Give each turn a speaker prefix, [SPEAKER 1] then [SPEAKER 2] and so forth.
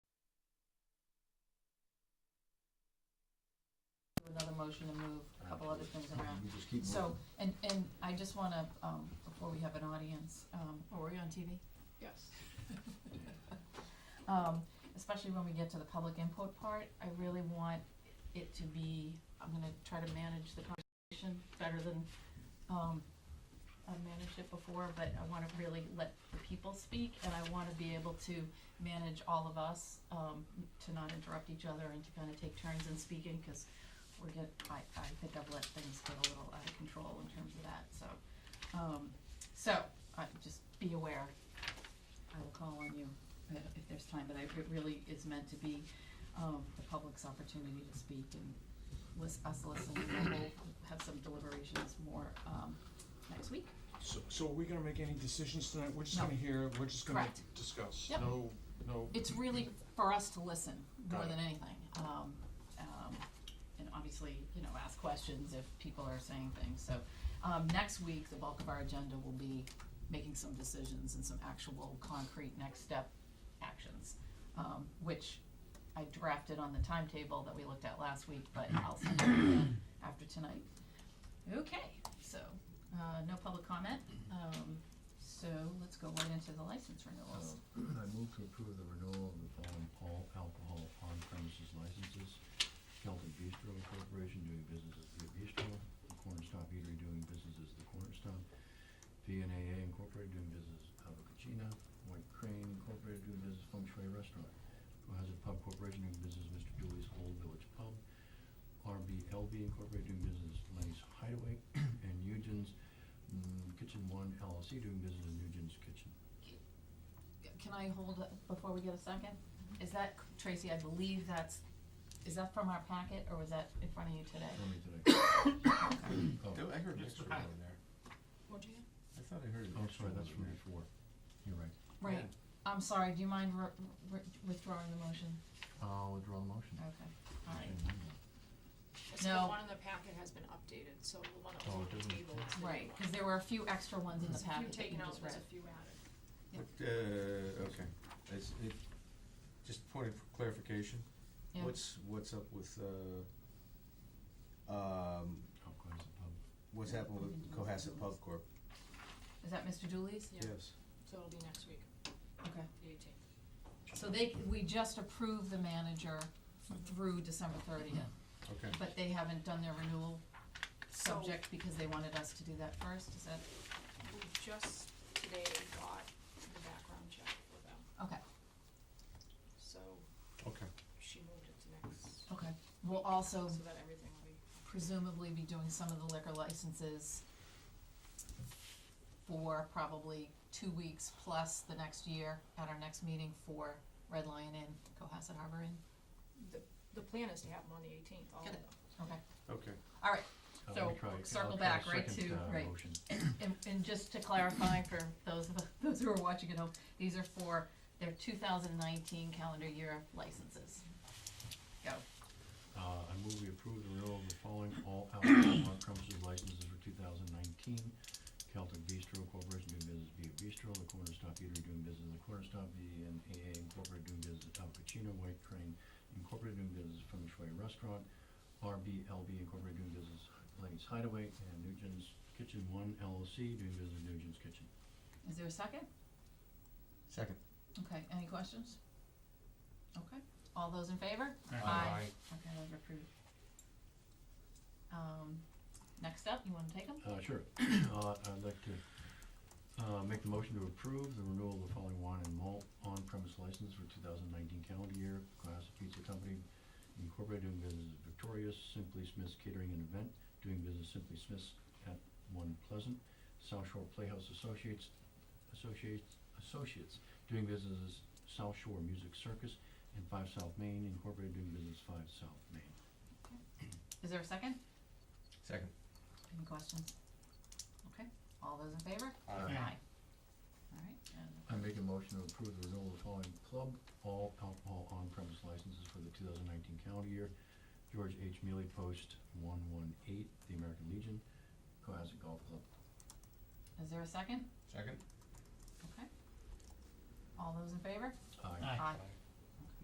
[SPEAKER 1] another motion to move a couple other things around.
[SPEAKER 2] You just keep
[SPEAKER 1] So,
[SPEAKER 2] moving.
[SPEAKER 1] and, and I just wanna, um, before we have an audience, um, are we on TV?
[SPEAKER 3] Yes.
[SPEAKER 1] Um, especially when we get to the public input part, I really want it to be, I'm gonna try to manage the conversation better than, um, I've managed it before, but I wanna really let the people speak, and I wanna be able to manage all of us, um, to not interrupt each other and to kinda take turns in speaking, cause we're get, I, I think I've let things get a little out of control in terms of that, so, um, so, I, just be aware. I will call on you uh, if there's time, but I, it really is meant to be, um, the public's opportunity to speak and lis- us listening, and we'll have some deliberations more, um, next week.
[SPEAKER 4] So, so are we gonna make any decisions tonight? We're just
[SPEAKER 1] No.
[SPEAKER 4] gonna hear, we're just gonna
[SPEAKER 1] Correct.
[SPEAKER 4] discuss,
[SPEAKER 1] Yep.
[SPEAKER 4] no, no.
[SPEAKER 1] It's really for us to listen more
[SPEAKER 4] Got it.
[SPEAKER 1] than anything, um, um, and obviously, you know, ask questions if people are saying things, so, um, next week, the bulk of our agenda will be making some decisions and some actual concrete next step actions, um, which I drafted on the timetable that we looked at last week, but I'll send it again after tonight. Okay, so, uh, no public comment, um, so let's go right into the license renewals.
[SPEAKER 2] Um, I move to approve the renewal of the following all alcohol on premises licenses. Celtic Bistro Corporation doing business as the Bistro, The Corner Stop Eatery doing business as the Corner Stop, VNAA Incorporated doing business as Avocatina, White Crane Incorporated doing business as Feng Shui Restaurant, Cohasset Pub Corporation doing business as Mr. Dooley's Old Village Pub, RBLB Incorporated doing business as Lenny's Hideaway, and Nugent's mm, Kitchen One LLC doing business as Nugent's Kitchen.
[SPEAKER 1] Can I hold, it before we get a second? Is that, Tracy, I believe that's, is that from our packet, or was that in front of you
[SPEAKER 2] Tell
[SPEAKER 1] today?
[SPEAKER 2] me today. Oh,
[SPEAKER 5] I heard an
[SPEAKER 4] It's
[SPEAKER 5] extra
[SPEAKER 4] the
[SPEAKER 5] one
[SPEAKER 4] packet.
[SPEAKER 5] there.
[SPEAKER 3] What'd you
[SPEAKER 5] I thought I heard an
[SPEAKER 2] oh,
[SPEAKER 5] extra
[SPEAKER 2] sorry,
[SPEAKER 5] one
[SPEAKER 2] that's from
[SPEAKER 5] there.
[SPEAKER 2] before. You're right.
[SPEAKER 1] Right, I'm sorry, do you mind re- re- withdrawing the motion?
[SPEAKER 2] I'll withdraw the motion.
[SPEAKER 1] Okay, all right.
[SPEAKER 3] get?
[SPEAKER 1] No.
[SPEAKER 3] The one in the packet has been updated, so the one that was
[SPEAKER 2] Oh,
[SPEAKER 3] on
[SPEAKER 2] it
[SPEAKER 3] the
[SPEAKER 2] doesn't-
[SPEAKER 3] table is the new one.
[SPEAKER 1] Right, because there were a few extra ones in the
[SPEAKER 3] There's a few
[SPEAKER 1] packet that you
[SPEAKER 3] taken out,
[SPEAKER 1] just read.
[SPEAKER 3] there's a few added.
[SPEAKER 5] But, uh, okay, it's, it, just point of clarification,
[SPEAKER 1] Yeah.
[SPEAKER 5] what's, what's up with, uh, um,
[SPEAKER 2] How close the pub?
[SPEAKER 5] what's happened with Cohasset Pub Corp?
[SPEAKER 1] Is that Mr. Dooley's?
[SPEAKER 3] Yeah.
[SPEAKER 5] Yes.
[SPEAKER 3] So it'll be next week,
[SPEAKER 1] Okay.
[SPEAKER 3] the eighteenth.
[SPEAKER 1] So they, we just approved the manager through December thirtieth,
[SPEAKER 5] Okay,
[SPEAKER 1] but they haven't done their renewal subject because they wanted us to do that first, is that?
[SPEAKER 3] So we just today got the background check for them,
[SPEAKER 1] Okay,
[SPEAKER 3] so
[SPEAKER 5] okay.
[SPEAKER 3] she moved it to next,
[SPEAKER 1] okay. We'll also
[SPEAKER 3] so that everything will be.
[SPEAKER 1] presumably be doing some of the liquor licenses for probably two weeks plus the next year at our next meeting for Red Lion Inn, Cohasset Harbor Inn.
[SPEAKER 3] The, the plan is to have them on the eighteenth, all of
[SPEAKER 1] Got
[SPEAKER 3] them.
[SPEAKER 1] it. Okay,
[SPEAKER 5] Okay.
[SPEAKER 1] all right.
[SPEAKER 2] Uh,
[SPEAKER 1] So,
[SPEAKER 2] let me try- I'll
[SPEAKER 1] circle
[SPEAKER 2] try
[SPEAKER 1] back, right,
[SPEAKER 2] second,
[SPEAKER 1] to-
[SPEAKER 2] uh,
[SPEAKER 1] right.
[SPEAKER 2] motion.
[SPEAKER 1] And, and just to clarify for those of, those who are watching at home, these are for their two thousand nineteen calendar year licenses. Go.
[SPEAKER 2] Uh, I move we approve the renewal of the following all alcohol on premises licenses for two thousand nineteen. Celtic Bistro Corporation doing business as Via Bistro, The Corner Stop Eatery doing business as The Corner Stop, VNAA Incorporated doing business as Al Pacino, White Crane Incorporated doing business as Feng Shui Restaurant, RBLB Incorporated doing business as Lenny's Hideaway, and Nugent's Kitchen One LLC doing business as Nugent's Kitchen.
[SPEAKER 1] Is there a second?
[SPEAKER 5] Second.
[SPEAKER 1] Okay, any questions? Okay, all those in favor?
[SPEAKER 5] Aye.
[SPEAKER 1] Okay, those are approved. Um, next up, you wanna take them?
[SPEAKER 2] Uh, sure. Uh, I'd like to, uh, make the motion to approve the renewal of the following wine and malt on-premise license for two thousand nineteen calendar year. Glass Pizza Company Incorporated doing business as Victorious, Simply Smith's Catering and Event, doing business as Simply Smith's at One Pleasant. South Shore Playhouse Associates, Associates, Associates, doing business as South Shore Music Circus. And Five South Main Incorporated doing business as Five South Main.
[SPEAKER 1] Is there a second?
[SPEAKER 5] Second.
[SPEAKER 1] Any questions? Okay, all those in favor?
[SPEAKER 4] Aye.
[SPEAKER 1] Alright, and
[SPEAKER 2] I make a motion to approve the renewal of the following club, all alcohol on-premise licenses for the two thousand nineteen calendar year. George H. Mealy Post, one one eight, the American Legion, Cohasset Golf Club.
[SPEAKER 1] is there a second?
[SPEAKER 5] Second?
[SPEAKER 1] Okay. All those in favor?
[SPEAKER 2] Aye.
[SPEAKER 4] Aye.